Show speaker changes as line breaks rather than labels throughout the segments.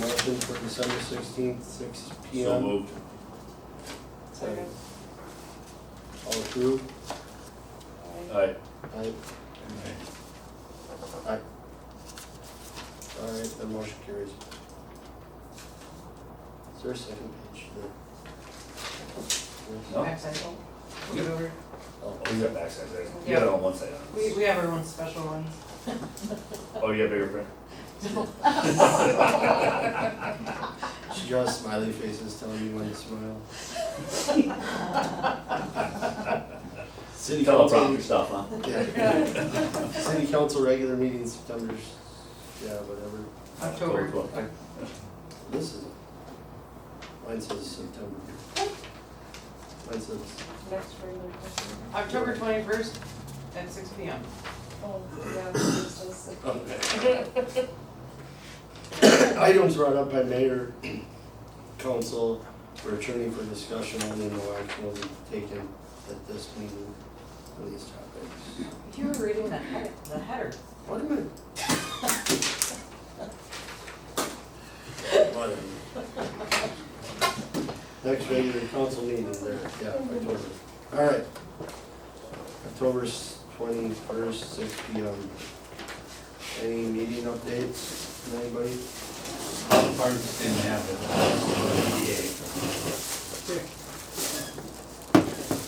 motion for December sixteenth, six P
So
M.
moved.
Second.
All approved? Aye.
Aye. Oh,
Aye. All right, the motion carries. Is there a second page? No.
No?
Backside vote. Give it over.
Oh,
Oh, you got backside there. You got it on one side. huh?
We, we have our own special ones.
Oh, you got bigger print?
She draws smiley faces telling you when to smile. City
Teleprompter
council,
stuff, huh?
yeah. City council regular meeting September, s- yeah, whatever.
October.
October.
Okay.
This is, mine says September. Mine says,
Next regular question.
October twenty-first at six P M.
Oh, yeah, it's just a-
items brought up by mayor, council, or attorney for discussion, only no action will be taken at this meeting on these topics.
If you were reading the header, the header.
What am I? Whatever. Next regular council meeting there, yeah, October. All right. October twenty-first, six P M. Any meeting updates, from anybody?
Departments didn't have it. PDA.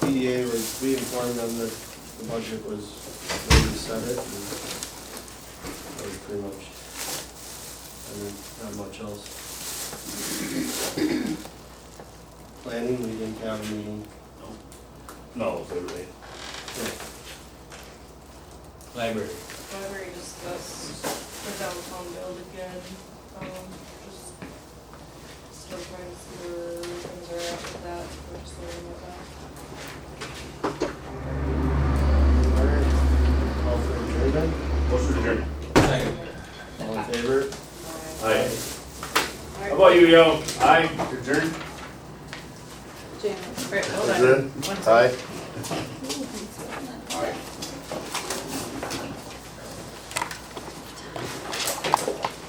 PDA was, we informed them that the budget was, where we set it, and that was pretty much, and then not much else. Planning, we didn't have a meeting.
No, they were late.
Library.
Library discussed the downtown build again, um, just still trying to see where things are at with that, we're just learning about that.
All right, all for adjournment,
Motion adjourned.
Second.
all in favor?
Aye. How about you, yo? Aye, adjourned?
Great, hold on.
Is it?
One second.
Hi.